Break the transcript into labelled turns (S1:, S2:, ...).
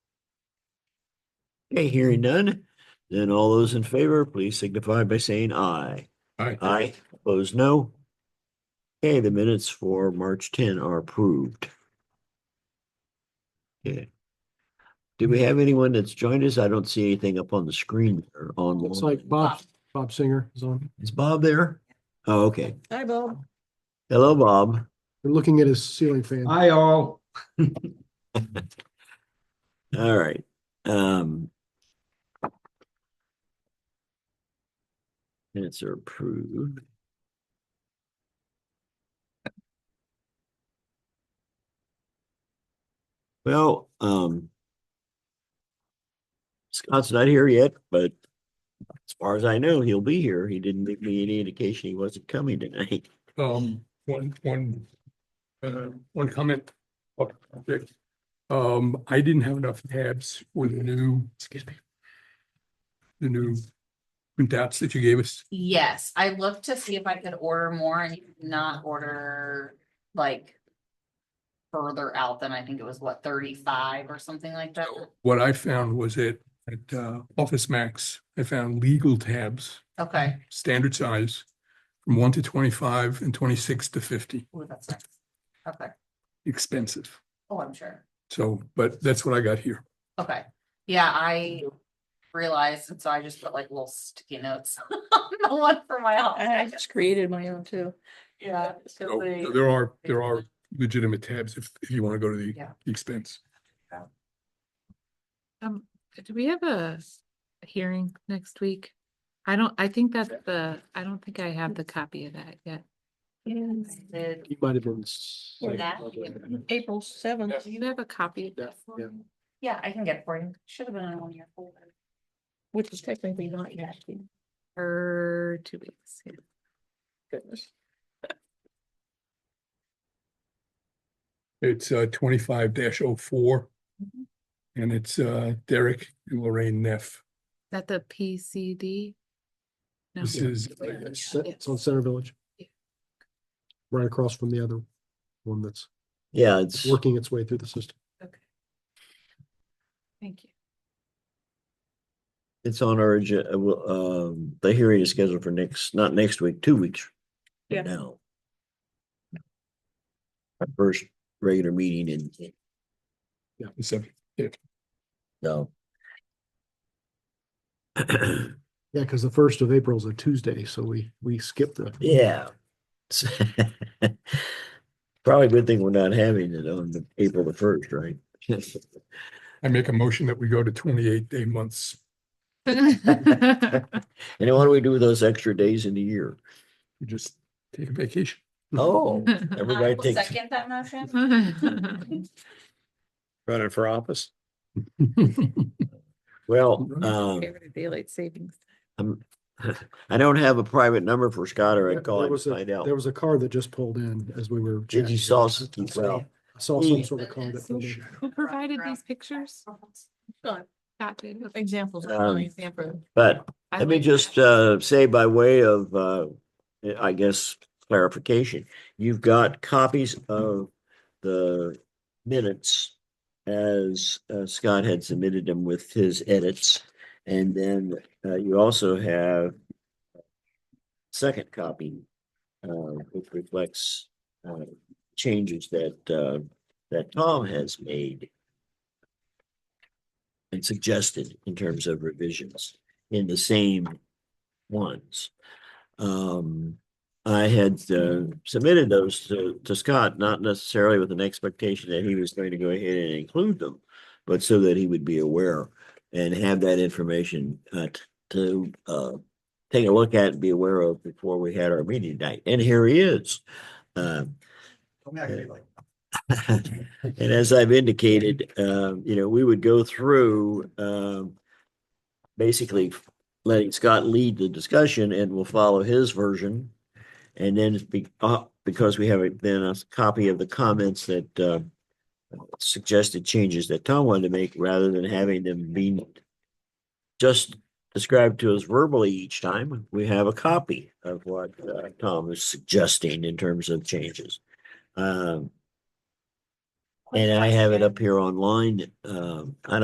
S1: Okay, hearing none, then all those in favor, please signify by saying aye.
S2: Aye.
S1: Aye, opposed, no. Okay, the minutes for March ten are approved. Okay. Do we have anyone that's joined us? I don't see anything up on the screen or online.
S3: Looks like Bob, Bob Singer is on.
S1: Is Bob there? Oh, okay.
S4: Hi, Bob.
S1: Hello, Bob.
S3: We're looking at his ceiling fan.
S2: Hi, all.
S1: All right, um. Minutes are approved. Well, um. Scott's not here yet, but as far as I know, he'll be here. He didn't give me any indication he wasn't coming tonight.
S5: Um, one, one, uh, one comment. about the project. Um, I didn't have enough tabs for the new, excuse me. The new printouts that you gave us.
S4: Yes, I looked to see if I could order more and you could not order like. Further out than I think it was what thirty-five or something like that.
S5: What I found was at, at, uh, Office Max, I found legal tabs,
S4: Okay,
S5: standard size. From one to twenty-five and twenty-six to fifty,
S4: Ooh, that's nice. Okay,
S5: expensive.
S4: oh, I'm sure.
S5: So, but that's what I got here.
S4: Okay, yeah, I realized, and so I just put like little sticky notes on the one for my
S1: Uh-huh.
S6: I
S4: office.
S6: just created my own too.
S4: Yeah. 'cause
S5: Oh, So
S4: they-
S5: There are, there are legitimate tabs if, if you want to go to the
S4: Yeah.
S5: expense.
S7: Um, do we have a a hearing next week? I don't, I think that's the, I don't think I have the copy of that yet.
S4: Did-
S3: He might have been. s-
S4: Yeah, that-
S6: April seventh.
S7: Do you have a copy of that? for
S3: yeah.
S7: me?
S4: Yeah, I can get it for you. Should have been on one of your folder.
S6: Which is technically not yet.
S7: Or two weeks. yeah.
S6: Goodness.
S5: It's uh twenty-five 4 And it's uh Derek and Lorraine Neff.
S7: Is That the PCD? No.
S5: This is,
S3: It's it's on Center Village.
S7: Yeah.
S3: Right across from the other one that's
S1: Yeah, it's,
S3: working its way through the system.
S7: Okay. Thank you.
S1: it's on our, agen- uh, well, um, the hearing is scheduled for next, not next week, two weeks. from
S6: Yeah.
S1: Now. Our first regular meeting in,
S5: it's a-
S1: no.
S3: Yeah, because the first of April is a Tuesday, so we, we skipped the.
S1: Yeah. It's- Probably a good thing we're not having it on the April the first, right?
S5: I make a motion that we go to twenty-eight day months.
S1: And what do we do with those extra days in the year?
S5: We just take a vacation.
S1: Oh,
S4: I
S1: everybody
S4: will
S1: takes,
S4: Second that motion.
S2: Running for office?
S1: well, um,
S7: Daylight savings.
S1: I'm, I don't have a private number for Scott or I'd call
S3: There
S1: him
S3: was
S1: to
S3: a-
S1: find out.
S3: There was a car that just pulled in as we were.
S1: Did you
S3: chatting.
S1: saw,
S3: I
S1: well,
S3: saw- I saw some sort of car that pulled in.
S7: Who provided these pictures?
S4: Uh-huh.
S6: Got
S7: Scott did.
S6: Examples.
S1: Um,
S6: only example.
S1: but
S7: I
S1: Let me
S7: like
S1: just
S7: that.
S1: uh say by way of uh, I guess clarification, you've got copies of the minutes as uh, Scott had submitted them with his edits. And then uh, you also have second copy, uh, which reflects uh, changes that uh, that Tom has made and suggested in terms of revisions in the same ones. Um, I had uh, submitted those to, to Scott, not necessarily with an expectation that he was going to go ahead and include them, but so that he would be aware and have that information uh, t- to uh, take a look at and be aware of before we had our meeting night. And here he is. Um, and as I've indicated, um, you know, we would go through, um, basically letting Scott lead the discussion and we'll follow his version. And then it's be, uh, because we have a- then a copy of the comments that, uh, suggested changes that Tom wanted to make rather than having them be just described to us verbally each time, we have a copy of what, uh, Tom is suggesting in terms of changes. Um, and I have it up here online. Um, I don't